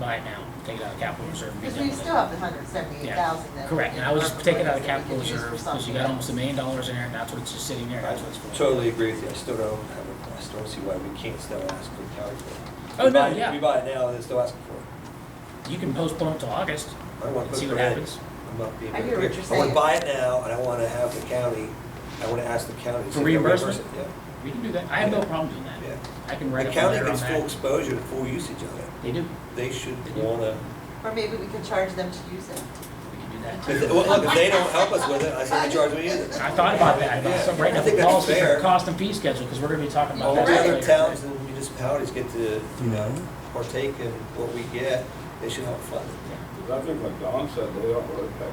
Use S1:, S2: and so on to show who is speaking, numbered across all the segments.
S1: buy it now, take it out of capital reserve. and
S2: Because
S1: use
S2: we
S1: it on
S2: still have the hundred seventy-eight thousand
S1: it.
S2: that.
S1: Correct, and I was just taking
S2: taking
S1: out of capital reserve, because you got almost a million dollars in there, and that's what's just sitting there, that's what it's for.
S3: Totally agree with you, I still don't have a, I still don't see why we can't still ask for the county for it.
S1: Oh,
S3: We
S1: no,
S3: buy it-
S1: yeah.
S3: We buy it now, and they're still asking for it.
S1: You can postpone it till August,
S3: I want to
S1: and
S3: put
S1: see
S3: it
S1: what
S3: in.
S1: happens.
S3: I'm not being.
S2: I hear what you're
S3: I want
S2: saying.
S3: to buy it now, and I want to have the county, I want to ask the county. to
S1: For
S3: see if they'll reimburse
S1: reimbursement?
S3: it,
S1: We can do that, I have no problem doing
S3: Yeah,
S1: that.
S3: yeah.
S1: I can write
S3: The
S1: up a
S3: county
S1: letter on
S3: gets full
S1: that.
S3: exposure and full usage of it.
S1: They do,
S3: They should
S1: They do.
S3: want to,
S2: Or maybe we could charge them to use it.
S1: we can do that.
S3: if, they- well, look, if they don't help us with it, I say they charge me either.
S1: I thought about that, I thought,
S3: Yeah.
S1: some right
S3: I
S1: now,
S3: think that's
S1: policy for
S3: fair.
S1: cost and fee schedule, because we're gonna be talking about
S3: All
S1: that
S3: the
S2: Right.
S3: other
S1: later.
S3: towns and municipalities get to, you know, partake in what we get, they should help fund it.
S4: Because I think like Don said, they don't really pay.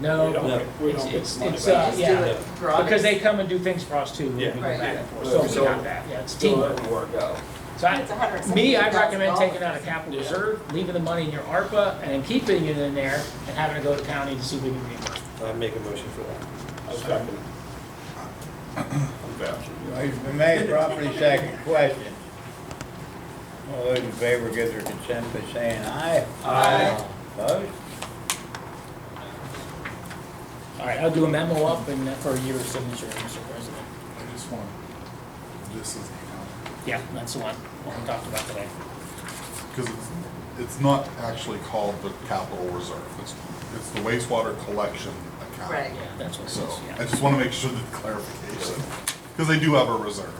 S1: No,
S4: We don't
S3: No.
S4: get- we
S1: it's,
S4: don't get
S1: it's,
S4: money
S1: it's,
S4: back.
S1: uh,
S2: Just do
S1: yeah,
S2: it for others.
S1: because they come and do things for us too. when we
S4: Yeah.
S1: go
S2: Right.
S1: back and forth.
S4: Yeah.
S1: So we
S3: So-
S1: got that, yeah, it's
S4: So
S1: teamwork.
S4: that would work out.
S1: So
S2: It's a hundred
S1: I,
S2: and
S1: me, I
S2: seventy
S1: recommend
S2: thousand
S1: taking out a capital
S4: dollars.
S1: reserve, leaving the money in your ARPA, and then keeping it in there, and having to go to county to see if we can reimburse.
S3: I make a motion for that.
S4: I second. I'm vouching.
S5: Motion been made, properly second, question. All those in favor give their consent by saying aye.
S2: Aye.
S5: Opposed?
S1: All right, I'll do a memo up and uh, for your signature, Mr. President.
S6: I just want, this is,
S1: Yeah, that's the one, what we talked about today.
S6: because it's, it's not actually called the capital reserve. It's, it's the wastewater collection account.
S2: Right.
S1: Yeah, that's what it
S6: So
S1: is,
S6: I
S1: yeah.
S6: just want to make sure that clarification, because they do have a reserve.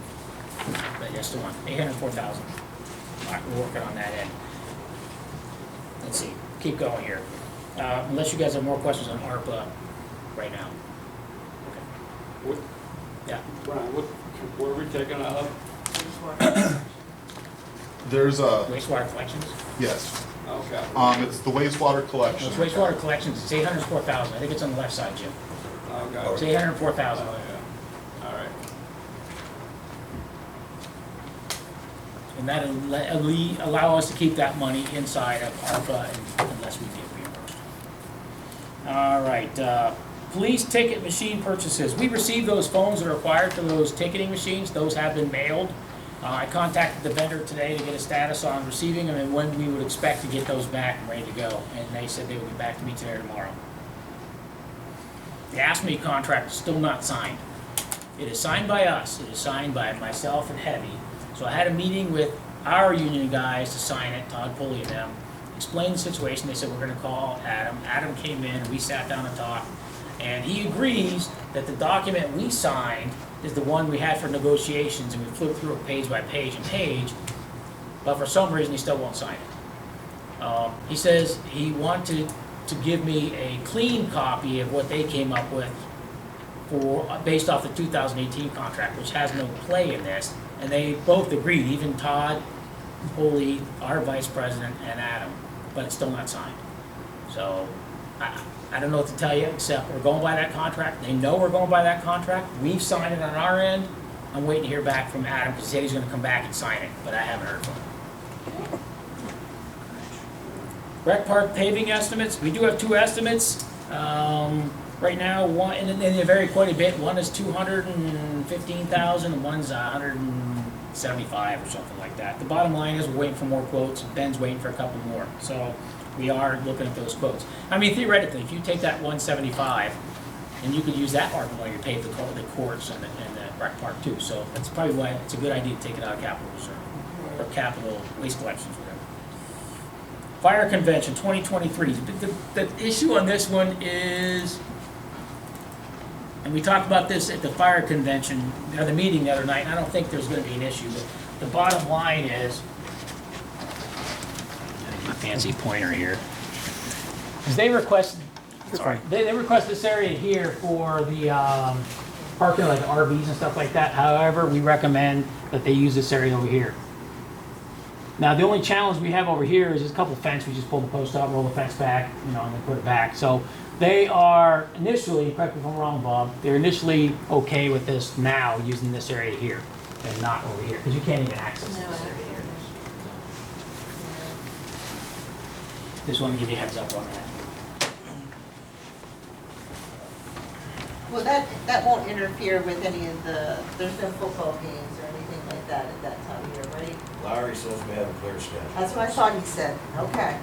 S1: But yes, the one, eight hundred four thousand. All right, we're working on that end. Let's see, keep going here. Uh, unless you guys have more questions on ARPA right now.
S4: What,
S1: Yeah,
S4: Brian, what, where are we taking it up?
S6: There's a,
S1: wastewater collections.
S6: yes,
S4: Okay.
S6: um, it's the wastewater collection.
S1: It's wastewater collections, it's eight hundred four thousand, I think it's on the left side, Jim.
S4: Uh,
S1: It's
S4: Okay.
S1: eight hundred four thousand.
S4: Oh, yeah. All right.
S1: And that'll uh, le- alle- allow us to keep that money inside of ARPA un- unless we get reimbursed. All right, uh, police ticket machine purchases. We received those phones that are required for those ticketing machines. Those have been mailed. Uh, I contacted the vendor today to get a status on receiving them and when we would expect to get those back and ready to go. And they said they would be back to me today or tomorrow. The ASME contract is still not signed. It is signed by us, it is signed by myself and Heavy. So I had a meeting with our union guys to sign it, Todd Pulley and them, explained the situation, they said, we're gonna call Adam. Adam came in, we sat down and talked, and he agrees that the document we signed is the one we had for negotiations, and we flipped through it page by page and page, but for some reason, he still won't sign it. Um, He says he wanted to give me a clean copy of what they came up with for, based off the 2018 contract, which has no play in this, and they both agreed, even Todd, Holy, our vice president, and Adam, but it's still not signed. So, I, I don't know what to tell you, except we're going by that contract, they know we're going by that contract, we've signed it on our end, I'm waiting to hear back from Adam, because he said he's gonna come back and sign it, but I haven't heard from him. Rec Park paving estimates, we do have two estimates, um, right now, one, and they- they vary quite a bit, one is two hundred and fifteen thousand, one's a hundred and seventy-five or something like that. The bottom line is, we're waiting for more quotes, Ben's waiting for a couple more, so we are looking at those quotes. I mean theoretically, if you take that one seventy-five, and you could use that ARPA money to pave the cour- the courts and the, and the rec park too, so that's probably why it's a good idea to take it out of capital reserve, or capital waste collections, whatever. Fire Convention 2023. The, the- the issue on this one is, and we talked about this at the fire convention, or the meeting the other night, and I don't think there's gonna be an issue, but the bottom line is, my fancy pointer here, is they requested, sorry, they, they requested this area here for the, um, parking, like RVs and stuff like that. However, we recommend that they use this area over here. Now, the only challenge we have over here is just a couple fence, we just pull the post out, roll the fence back, you know, and then put it back. So they are initially, correct me if I'm wrong, Bob, they're initially okay with this now, using this area here and not over here, because you can't even access this area here. Just want to give you a heads up on that.
S2: Well, that, that won't interfere with any of the, there's no football games or anything like that at that time of year, right?
S7: Larry says we have a clear schedule.
S2: That's what I thought he said, okay.